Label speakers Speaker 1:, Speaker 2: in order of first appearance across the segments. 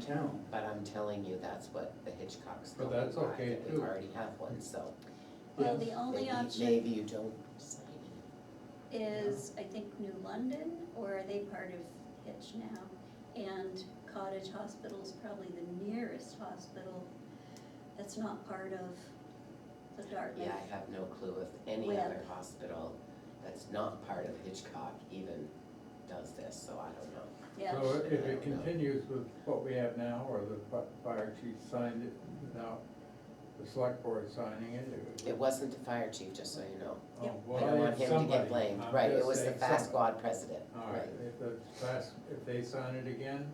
Speaker 1: town. But I'm telling you, that's what the Hitchcocks
Speaker 2: But
Speaker 1: told me,
Speaker 2: that's
Speaker 1: Mark,
Speaker 2: okay,
Speaker 1: that we
Speaker 2: too.
Speaker 1: already have one, so
Speaker 3: Well, the only
Speaker 1: maybe,
Speaker 3: option
Speaker 1: maybe you don't sign it.
Speaker 3: is, I think, New London, or are they part of Hitch now? And Cottage Hospital's probably the nearest hospital that's not part of the Dartmouth.
Speaker 1: Yeah, I have no clue if any
Speaker 3: Well-
Speaker 1: other hospital that's not part of Hitchcock even does this, so I don't know.
Speaker 3: Yeah,
Speaker 2: So if it continues with what we have now, or the fi- fire chief signed it without the select board signing it, it
Speaker 1: It
Speaker 2: was.
Speaker 1: wasn't the fire chief, just so you know.
Speaker 2: Oh,
Speaker 1: I
Speaker 2: well,
Speaker 1: don't want
Speaker 2: it's
Speaker 1: him to
Speaker 2: somebody.
Speaker 1: get blamed,
Speaker 2: I'm
Speaker 1: right, it
Speaker 2: just
Speaker 1: was the
Speaker 2: saying
Speaker 1: fast
Speaker 2: somebody.
Speaker 1: squad president,
Speaker 2: All
Speaker 1: right.
Speaker 2: right, if the fast, if they sign it again,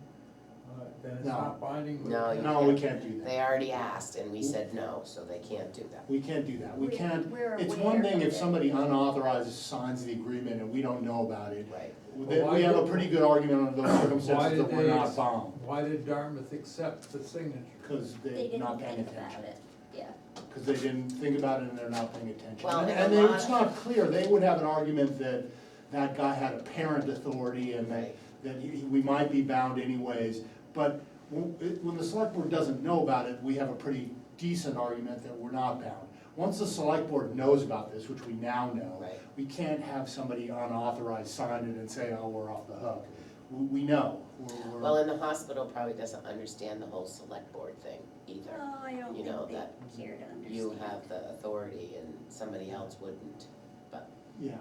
Speaker 2: uh, then it's
Speaker 4: No.
Speaker 2: not binding. we
Speaker 1: No,
Speaker 2: can't-
Speaker 4: No, we can't do
Speaker 1: They
Speaker 4: that.
Speaker 1: already asked and we said no, so they can't do that.
Speaker 4: We can't do that. We
Speaker 3: We're-
Speaker 4: can't,
Speaker 3: we're
Speaker 4: it's
Speaker 3: aware
Speaker 4: one thing
Speaker 3: of
Speaker 4: if
Speaker 3: it.
Speaker 4: somebody unauthorized signs the agreement and we don't know about it.
Speaker 1: Right,
Speaker 4: Then
Speaker 2: why
Speaker 4: we have a
Speaker 2: did-
Speaker 4: pretty good argument under those
Speaker 2: Why
Speaker 4: circumstances
Speaker 2: did
Speaker 4: that we're
Speaker 2: they,
Speaker 4: not
Speaker 2: ex-
Speaker 4: bound,
Speaker 2: why did Dartmouth accept the signature?
Speaker 4: because
Speaker 3: They
Speaker 4: they're
Speaker 3: didn't
Speaker 4: not paying
Speaker 3: think about
Speaker 4: attention.
Speaker 3: it, yeah.
Speaker 4: Because they didn't think about it and they're not paying attention.
Speaker 1: Well,
Speaker 4: And and
Speaker 1: and a
Speaker 4: they-
Speaker 1: lot
Speaker 4: it's
Speaker 1: of-
Speaker 4: not clear, they would have an argument that that guy had a parent authority and that,
Speaker 1: Right.
Speaker 4: that he- we might be bound anyways. But when, it- when the select board doesn't know about it, we have a pretty decent argument that we're not bound. Once the select board knows about this, which we now know.
Speaker 1: Right.
Speaker 4: We can't have somebody unauthorized sign it and say, oh, we're off the hook. We, we know, we're,
Speaker 1: well,
Speaker 4: we're,
Speaker 1: and the hospital probably doesn't understand the whole select board thing either.
Speaker 3: Oh, I don't
Speaker 1: You know, that
Speaker 3: think they care to understand.
Speaker 1: You have the authority and somebody else wouldn't, but
Speaker 4: yeah.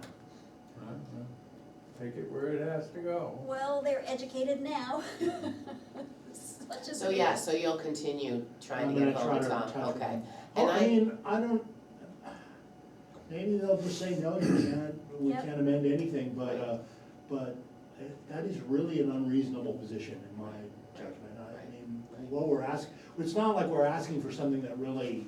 Speaker 2: Huh? Take it where it has to go.
Speaker 3: Well, they're educated now. Such as
Speaker 1: So
Speaker 3: it
Speaker 1: yeah,
Speaker 3: is.
Speaker 1: so you'll continue trying
Speaker 4: I'm
Speaker 1: to get
Speaker 4: gonna
Speaker 1: hold of
Speaker 4: try
Speaker 1: Tom,
Speaker 4: to touch
Speaker 1: okay.
Speaker 4: them.
Speaker 1: And
Speaker 4: I
Speaker 1: I,
Speaker 4: mean, I don't, maybe they'll just say, no, you can't, we
Speaker 3: Yep.
Speaker 4: can't amend anything, but, uh, but that is really an unreasonable position in my judgment. I
Speaker 1: Right.
Speaker 4: mean, what we're asking, it's not like we're asking for something that really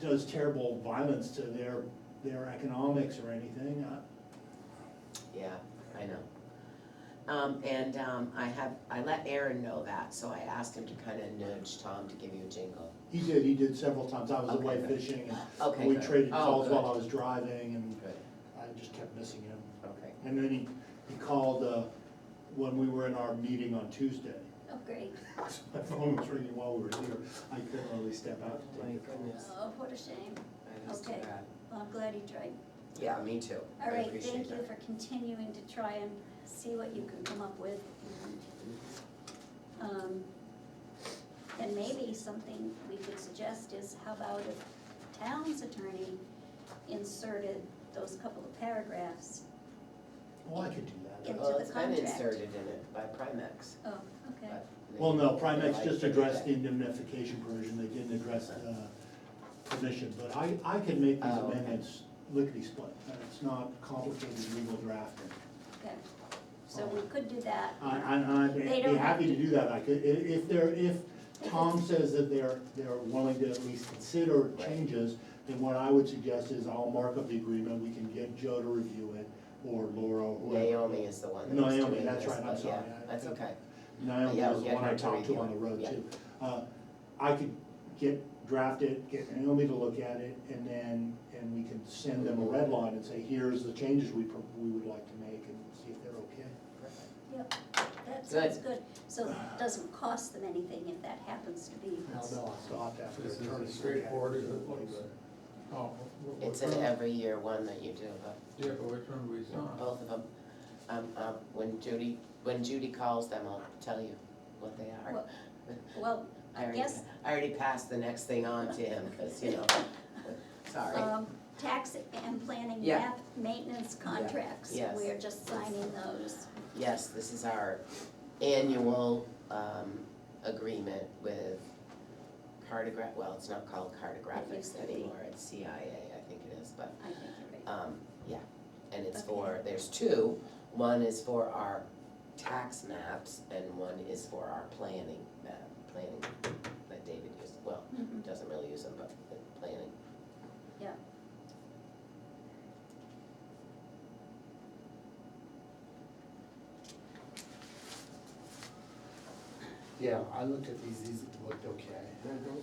Speaker 4: does terrible violence to their, their economics or anything. Uh, I-
Speaker 1: yeah, I know. Um, and, um, I have, I let Aaron know that, so I asked him to kind of nudge Tom to give you a jingle.
Speaker 4: He did, he did several times. I was
Speaker 1: Okay,
Speaker 4: away
Speaker 1: good.
Speaker 4: fishing
Speaker 1: Okay,
Speaker 4: and we
Speaker 1: good.
Speaker 4: traded
Speaker 1: Oh,
Speaker 4: calls while I
Speaker 1: good.
Speaker 4: was driving and
Speaker 1: Good,
Speaker 4: I just kept missing him.
Speaker 1: okay.
Speaker 4: And then he, he called, uh, when we were in our meeting on Tuesday.
Speaker 3: Oh, great.
Speaker 4: So My phone was ringing while we were here. I couldn't really step out to
Speaker 1: My
Speaker 4: take the call.
Speaker 1: goodness,
Speaker 3: Oh, what a shame.
Speaker 1: that is too
Speaker 3: Okay.
Speaker 1: bad.
Speaker 3: Well, I'm glad he tried.
Speaker 1: Yeah, me too. I
Speaker 3: All right,
Speaker 1: appreciate
Speaker 3: thank you
Speaker 1: that.
Speaker 3: for continuing to try and see what you can come up with. Um, And maybe something we could suggest is how about if town's attorney inserted those couple of paragraphs?
Speaker 4: Well, Oh, I could do that.
Speaker 3: Into
Speaker 1: Well,
Speaker 3: the
Speaker 1: it's been
Speaker 3: contract.
Speaker 1: inserted in it by Primex,
Speaker 3: Oh, okay.
Speaker 1: but.
Speaker 4: Well, no,
Speaker 1: maybe they'd
Speaker 4: Primex
Speaker 1: like
Speaker 4: just
Speaker 1: to do
Speaker 4: addressed the
Speaker 1: that.
Speaker 4: indemnification provision. They didn't address the permission, but I, I can make these
Speaker 1: Oh, okay.
Speaker 4: amendments lickety split. It's not complicated legal drafting.
Speaker 3: Okay, so we could do that.
Speaker 4: I, I, I'd
Speaker 3: They
Speaker 4: be
Speaker 3: don't-
Speaker 4: happy to do that. I could, i- if there, if Tom says that they're, they're willing to at least consider changes, then what I would suggest is I'll mark up the agreement, we can get Joe to review it, or Laura, or whoever.
Speaker 1: Naomi is the one that was
Speaker 4: Naomi,
Speaker 1: doing
Speaker 4: that's
Speaker 1: this,
Speaker 4: right, I'm
Speaker 1: but yeah,
Speaker 4: sorry, I-
Speaker 1: That's okay,
Speaker 4: Naomi
Speaker 1: Yeah,
Speaker 4: was the
Speaker 1: get
Speaker 4: one
Speaker 1: her
Speaker 4: I
Speaker 1: to
Speaker 4: talked to on the
Speaker 1: review it,
Speaker 4: road
Speaker 1: yeah.
Speaker 4: too. Uh, I could get, draft it, get Naomi to look at it, and then, and we can send them a red line and say, here's the changes we, pro- we would like to make, and see if they're okay.
Speaker 1: perfect.
Speaker 3: Yep, that sounds good. So
Speaker 4: Uh,
Speaker 3: it doesn't cost them anything if that happens to be.
Speaker 4: Now, they'll stop after.
Speaker 2: This is
Speaker 4: attorney's look at
Speaker 2: as
Speaker 4: it.
Speaker 2: straightforward as it looks. Oh, wh- wh-
Speaker 1: It's
Speaker 2: which
Speaker 1: an
Speaker 2: one-
Speaker 1: every year one that you do, but
Speaker 2: Yeah, but which one we
Speaker 4: Oh.
Speaker 2: sign?
Speaker 1: both of them. Um, um, when Judy, when Judy calls them, I'll tell you what they are.
Speaker 3: Well, Well,
Speaker 1: I already,
Speaker 3: yes.
Speaker 1: I already passed the next thing on to him, cause you know, sorry.
Speaker 3: um, tax and planning
Speaker 1: Yeah.
Speaker 3: map maintenance contracts.
Speaker 1: Yes.
Speaker 3: We're just signing those.
Speaker 1: Yes, this is our annual, um, agreement with cartograph, well, it's not called
Speaker 3: used
Speaker 1: cartographics
Speaker 3: to be.
Speaker 1: anymore, it's CIA, I think it is, but
Speaker 3: I think you're right.
Speaker 1: Um, yeah, and it's
Speaker 3: Okay.
Speaker 1: for, there's two, one is for our tax maps and one is for our planning map, planning that David used, well,
Speaker 3: Mhm.
Speaker 1: doesn't really use them, but the planning.
Speaker 3: Yeah.
Speaker 4: Yeah, I looked at these, these looked okay.
Speaker 3: Mm-hmm.